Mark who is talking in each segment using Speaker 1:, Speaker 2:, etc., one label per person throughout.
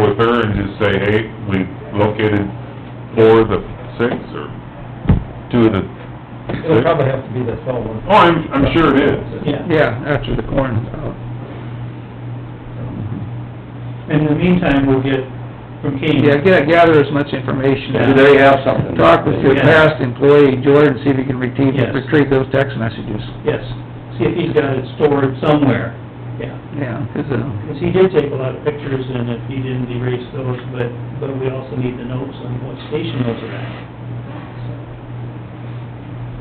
Speaker 1: with her and just say, hey, we located four of the six, or two of the six?
Speaker 2: It'll probably have to be the cell one.
Speaker 1: Oh, I'm, I'm sure it is.
Speaker 2: Yeah.
Speaker 3: Yeah, after the corn's out.
Speaker 2: In the meantime, we'll get from Kane.
Speaker 3: Yeah, get, gather as much information.
Speaker 4: Do they have something?
Speaker 3: Talk with your past employee, Jordan, see if you can retrieve,
Speaker 2: Yes.
Speaker 3: retrieve those text messages.
Speaker 2: Yes, see if he's got it stored somewhere, yeah.
Speaker 3: Yeah, 'cause, uh,
Speaker 2: Because he did take a lot of pictures, and if he didn't erase those, but, but we also need the notes on what station those are at.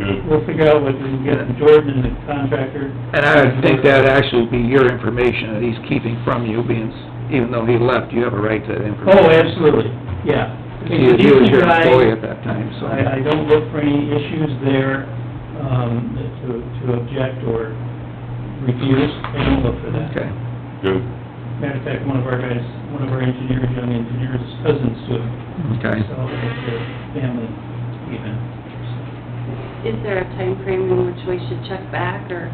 Speaker 1: Good.
Speaker 2: We'll figure out what we can get from Jordan and the contractor.
Speaker 3: and I would think that'd actually be your information that he's keeping from you, being, s- even though he left, you have a right to that information.
Speaker 2: Oh, absolutely, yeah.
Speaker 3: He he was
Speaker 2: Decent
Speaker 3: your
Speaker 2: guy.
Speaker 3: employee at that time, so.
Speaker 2: I, I don't look for any issues there, um, to, to object or refuse, I don't look for that.
Speaker 3: Okay.
Speaker 1: Good.
Speaker 2: Matter of fact, one of our guys, one of our engineers, young engineers, is cousins to him.
Speaker 3: Okay.
Speaker 2: So, it's a family event.
Speaker 5: Is there a time frame in which we should check back, or,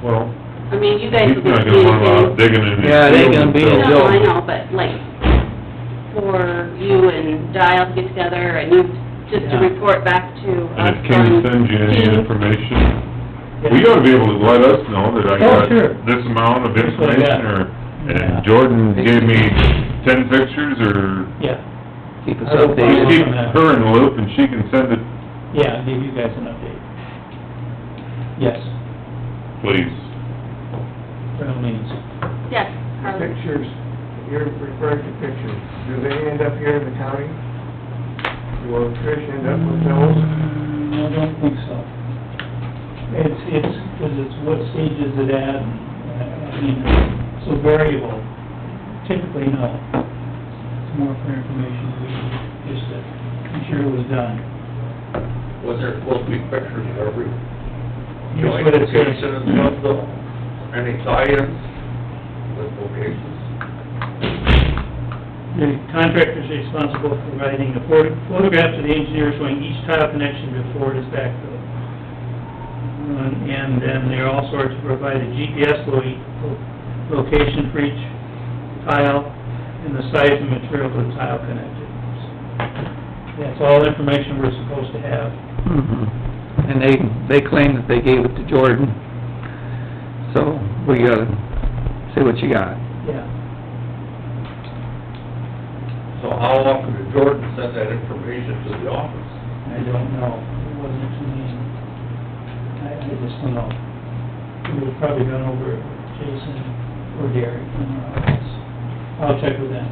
Speaker 1: Well,
Speaker 5: I mean, you guys
Speaker 1: he's
Speaker 5: will be
Speaker 1: not gonna want out
Speaker 5: communicating.
Speaker 1: digging in his
Speaker 3: Yeah, they
Speaker 1: field
Speaker 3: gonna be in
Speaker 1: himself.
Speaker 5: No, I know, but like, for you and Dial to get together, and you, just to
Speaker 2: Yeah.
Speaker 5: report back to
Speaker 1: And if
Speaker 5: us
Speaker 1: Kenny
Speaker 5: on
Speaker 1: sends you any
Speaker 5: Keith.
Speaker 1: information,
Speaker 2: Yeah.
Speaker 1: we ought to be able to let us know that I
Speaker 2: Oh,
Speaker 1: got
Speaker 2: sure.
Speaker 1: this amount of
Speaker 2: That's what I
Speaker 1: information,
Speaker 2: got.
Speaker 1: or,
Speaker 2: Yeah.
Speaker 1: and Jordan gave me ten pictures, or
Speaker 2: Yeah,
Speaker 3: Keep us
Speaker 2: I will
Speaker 1: We
Speaker 2: follow
Speaker 3: updated.
Speaker 2: up.
Speaker 1: keep her in the loop and she can send it,
Speaker 2: yeah, I'll give you guys an update. Yes,
Speaker 1: please.
Speaker 2: by all means.
Speaker 5: Yes, Carly.
Speaker 6: Pictures, you're referring to pictures, do they end up here in the county? Will Trish end up with those?
Speaker 2: No, I don't think so. It's, it's, because it's what stage is it at, and, uh, I mean, it's so variable. Typically, no. It's more for information, we just to ensure it was done.
Speaker 4: Was there supposed to be pictures of every
Speaker 2: Here's what it says.
Speaker 4: location and stuff though? Any tie-ins with locations?
Speaker 2: The contractor is responsible for providing a photo- photograph to the engineer showing each tile connection before it is backfilled. Um, And then they're also to provide a GPS lo- location for each tile and the size and material of the tile connected. That's all information we're supposed to have.
Speaker 3: Mhm. And they, they claim that they gave it to Jordan, so we gotta see what you got.
Speaker 2: Yeah.
Speaker 4: So how often did Jordan send that information to the office?
Speaker 2: I don't know. It wasn't to me. I, I just don't know. It was probably done over Jason or Derek in our office. I'll check with them,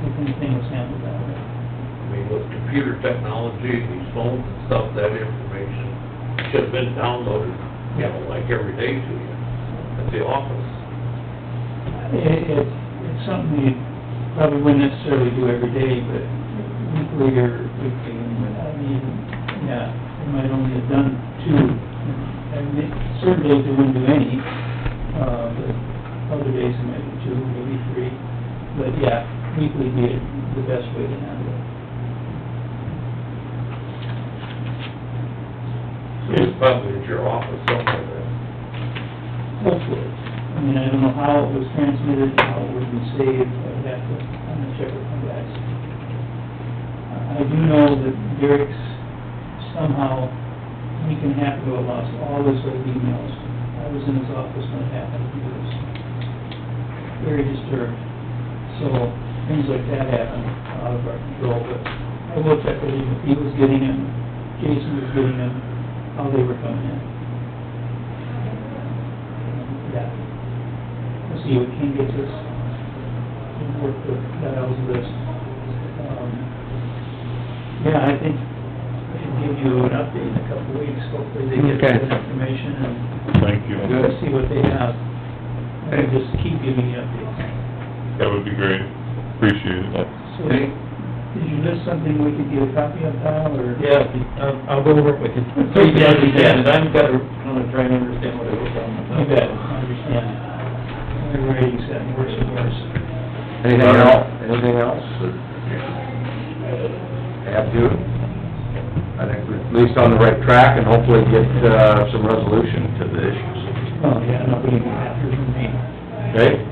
Speaker 2: see if anything was handled that way.
Speaker 4: I mean, with computer technology, these phones and stuff, that information should have been downloaded, you know, like every day to you at the office.
Speaker 2: It, it, it's something you probably wouldn't necessarily do every day, but weekly or weekly, I mean, yeah, we might only have done two. And it- certain days we wouldn't do any, uh, but other days it might be two, maybe three. But yeah, weekly would be the best way to handle it.
Speaker 4: So it's probably at your office somewhere then.
Speaker 2: hopefully. I mean, I don't know how it was transmitted, how it would be saved, I'd have to, I'm gonna check with my guys. Uh, I do know that Derek's somehow, he can have to have lost all his old emails. I was in his office when it happened, he was very disturbed. So, things like that happen out of our control, but I will check with him if he was getting them, Jason was getting them, how they were coming in. Yeah. We'll see what King gets us, and work with Kyle's list. Um, Yeah, I think I should give you an update in a couple of weeks, hopefully they get
Speaker 3: Okay.
Speaker 2: some information and
Speaker 1: Thank you.
Speaker 2: we'll see what they have. And just keep giving you updates.
Speaker 1: That would be great. Appreciate it.
Speaker 2: So, did you list something we could get a copy of, Kyle, or?
Speaker 6: Yeah, I'll- I'll go over it with you.
Speaker 2: So you got it again.
Speaker 6: I'm gonna, I'm gonna try and understand what it was
Speaker 2: You
Speaker 6: on.
Speaker 2: bet, I understand. Every rating's gotten worse and worse.
Speaker 4: Anything else, anything else have to? I think we're at least on the right track and hopefully get, uh, some resolution to the issues,
Speaker 2: Oh, yeah, nobody can have it from me.
Speaker 4: okay?